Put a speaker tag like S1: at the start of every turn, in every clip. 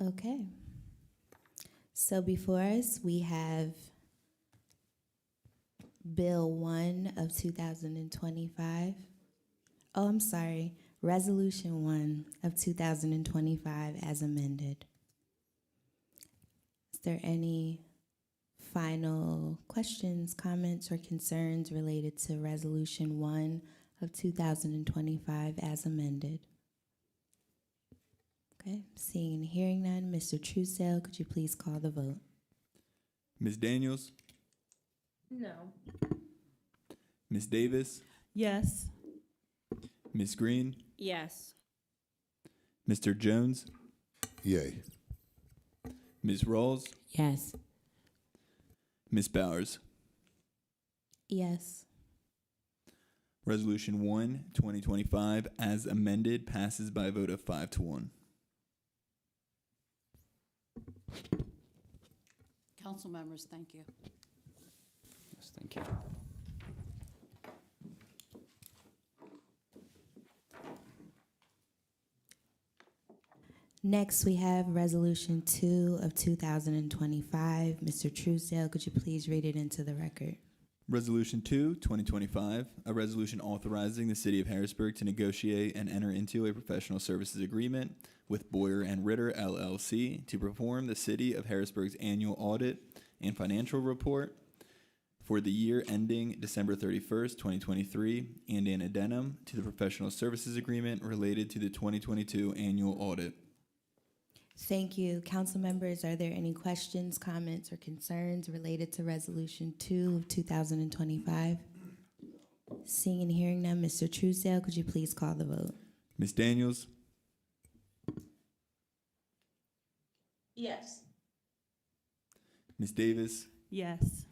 S1: Okay. So before us, we have Bill 1 of 2025. Oh, I'm sorry, Resolution 1 of 2025 as amended. Is there any final questions, comments, or concerns related to Resolution 1 of 2025 as amended? Okay, seeing and hearing none, Mr. Truesdale, could you please call the vote?
S2: Ms. Daniels,
S3: No.
S2: Ms. Davis,
S3: Yes.
S2: Ms. Green,
S3: Yes.
S2: Mr. Jones,
S4: Yay.
S2: Ms. Rawls,
S3: Yes.
S2: Ms. Bowers.
S1: Yes.
S2: Resolution 1, 2025, as amended, passes by a vote of 5 to 1.
S5: Council members, thank you.
S6: Yes, thank you.
S1: Next, we have Resolution 2 of 2025. Mr. Truesdale, could you please read it into the record?
S2: Resolution 2, 2025, a resolution authorizing the City of Harrisburg to negotiate and enter into a professional services agreement with Boyer and Ritter LLC to perform the City of Harrisburg's annual audit and financial report for the year ending December 31st, 2023, and an addendum to the professional services agreement related to the 2022 annual audit.
S1: Thank you. Council members, are there any questions, comments, or concerns related to Resolution 2 of 2025? Seeing and hearing none, Mr. Truesdale, could you please call the vote?
S2: Ms. Daniels,
S3: Yes.
S2: Ms. Davis,
S3: Yes.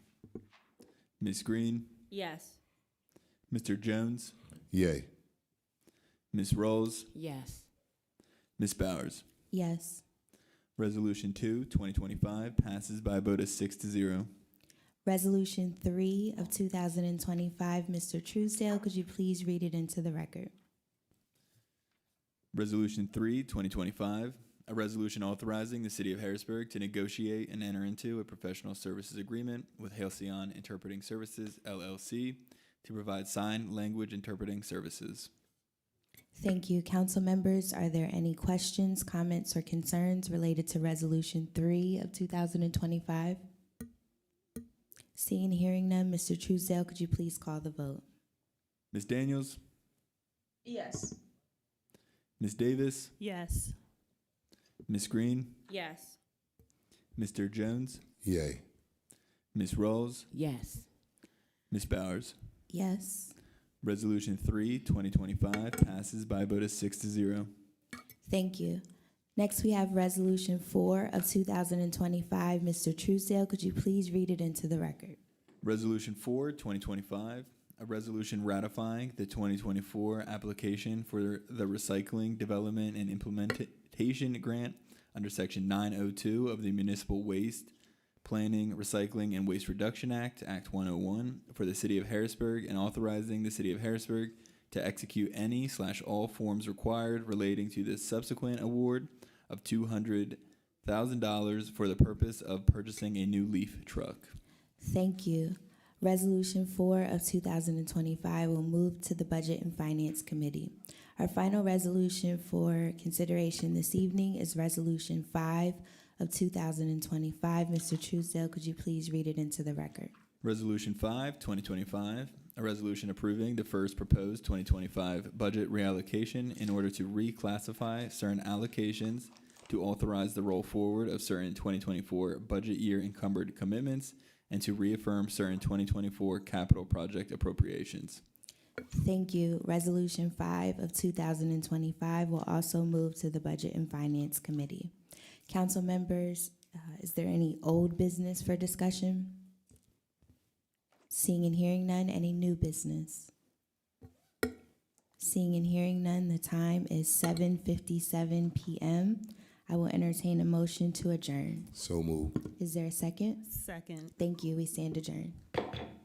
S2: Ms. Green,
S3: Yes.
S2: Mr. Jones,
S4: Yay.
S2: Ms. Rawls,
S5: Yes.
S2: Ms. Bowers.
S1: Yes.
S2: Resolution 2, 2025 passes by a vote of 6 to 0.
S1: Resolution 3 of 2025, Mr. Truesdale, could you please read it into the record?
S2: Resolution 3, 2025, a resolution authorizing the City of Harrisburg to negotiate and enter into a professional services agreement with Halcyon Interpreting Services, LLC, to provide sign language interpreting services.
S1: Thank you. Council members, are there any questions, comments, or concerns related to Resolution 3 of 2025? Seeing and hearing none, Mr. Truesdale, could you please call the vote?
S2: Ms. Daniels,
S3: Yes.
S2: Ms. Davis,
S3: Yes.
S2: Ms. Green,
S3: Yes.
S2: Mr. Jones,
S4: Yay.
S2: Ms. Rawls,
S5: Yes.
S2: Ms. Bowers.
S1: Yes.
S2: Resolution 3, 2025 passes by a vote of 6 to 0.
S1: Thank you. Next, we have Resolution 4 of 2025. Mr. Truesdale, could you please read it into the record?
S2: Resolution 4, 2025, a resolution ratifying the 2024 application for the Recycling Development and Implementation Grant under Section 902 of the Municipal Waste Planning, Recycling, and Waste Reduction Act, Act 101, for the City of Harrisburg and authorizing the City of Harrisburg to execute any slash all forms required relating to the subsequent award of $200,000 for the purpose of purchasing a new leaf truck.
S1: Thank you. Resolution 4 of 2025 will move to the Budget and Finance Committee. Our final resolution for consideration this evening is Resolution 5 of 2025. Mr. Truesdale, could you please read it into the record?
S2: Resolution 5, 2025, a resolution approving the first proposed 2025 budget reallocation in order to reclassify certain allocations to authorize the roll forward of certain 2024 budget year encumbered commitments and to reaffirm certain 2024 capital project appropriations.
S1: Thank you. Resolution 5 of 2025 will also move to the Budget and Finance Committee. Council members, uh, is there any old business for discussion? Seeing and hearing none, any new business? Seeing and hearing none, the time is 7:57 PM. I will entertain a motion to adjourn.
S4: So moved.
S1: Is there a second?
S3: Second.
S1: Thank you. We stand adjourned.